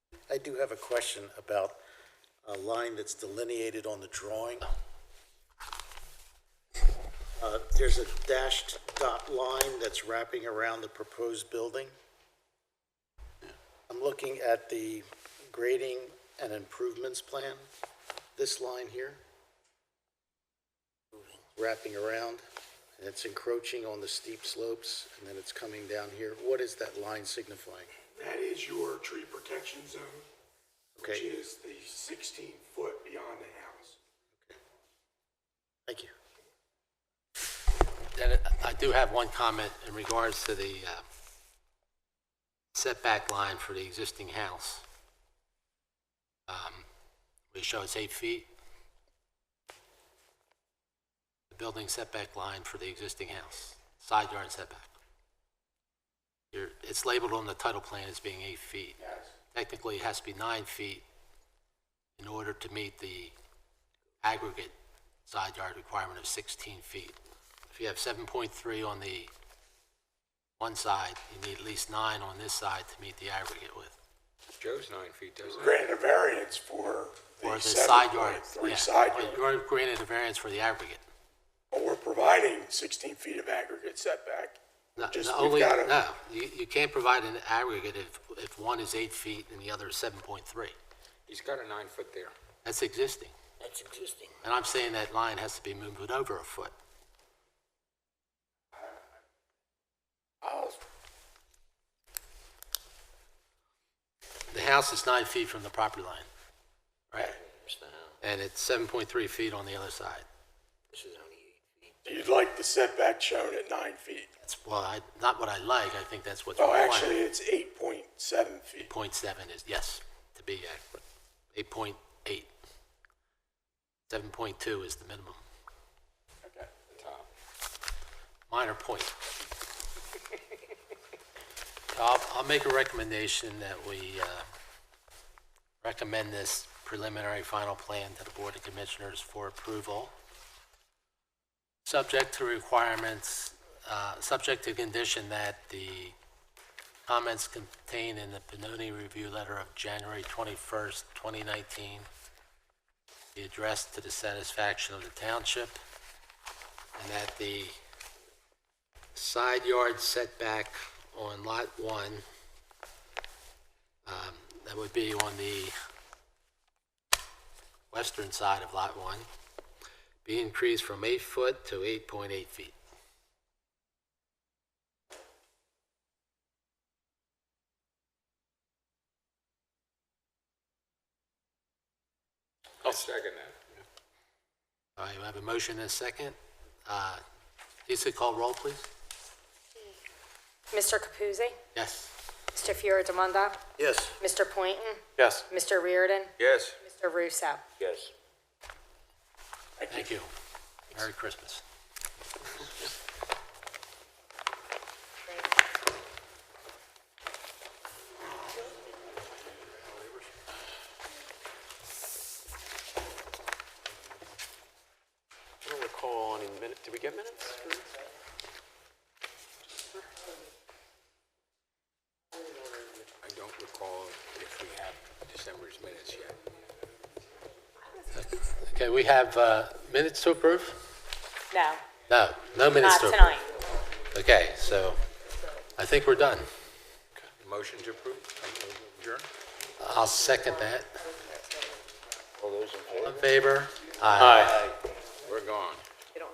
I do have a question about a line that's delineated on the drawing. Uh, There's a dashed dot line that's wrapping around the proposed building. I'm looking at the grading and improvements plan, this line here, wrapping around, and it's encroaching on the steep slopes, and then it's coming down here. What is that line signifying? That is your tree protection zone, which Okay, is the sixteen foot beyond the house. thank you. Then I do have one comment in regards to the uh, setback line for the existing house. Um, We show it's eight feet. The building setback line for the existing house, side yard setback. You're- It's labeled on the title plan as being eight feet. Technically, it has to be nine feet in order to meet the aggregate side yard requirement of 16 feet. If you have 7.3 on the one side, you need at least nine on this side to meet the aggregate with. Joe's nine feet, doesn't he? Grant a variance for Or the the side seven yard. point three yeah. side But yard. You're granted a variance for the aggregate. But we're providing sixteen feet of aggregate setback. No, Just- no, we've only, gotta- no, you, you can't provide an aggregate if, if one is eight feet and the other is 7.3. He's got a nine foot there. That's existing. That's existing. And I'm saying that line has to be moved over a foot. I'll- The house is nine feet from the property line, right? It's the house. And it's 7.3 feet on the other side. This is only eight feet. You'd like the setback shown at nine feet. That's, well, I, not what I like, I think that's what's Oh, required. actually, it's eight point seven feet. Point seven is, yes, to be accurate. Eight point eight. Seven point two is the minimum, Okay. The top. minor point. I'll, I'll make a recommendation that we, uh, recommend this preliminary final plan to the Board of Commissioners for approval. Subject to requirements, uh, subject to condition that the comments contained in the Pinoni Review Letter of January 21st, 2019 be addressed to the satisfaction of the township, and that the side yard setback on Lot 1, um, that would be on the western side of Lot 1, be increased from 8 foot to 8.8 feet. I'll second that. All right, we have a motion and a second. Uh, Lisa, call roll, please. Mr. Capuzzi, Yes. Mr. Fioradamanda, Yes. Mr. Pointon, Yes. Mr. Reardon, Yes. Mr. Russo. Yes. Thank you. Merry Christmas. I don't recall any minute, did we get minutes? for this? I don't recall if we have December's minutes yet. Okay, we have uh, minutes to approve? No, No, no minutes not to approve. tonight. Okay, so I think we're done. Motion to approve, adjourn? I'll second that. All those in favor? All in favor? Aye.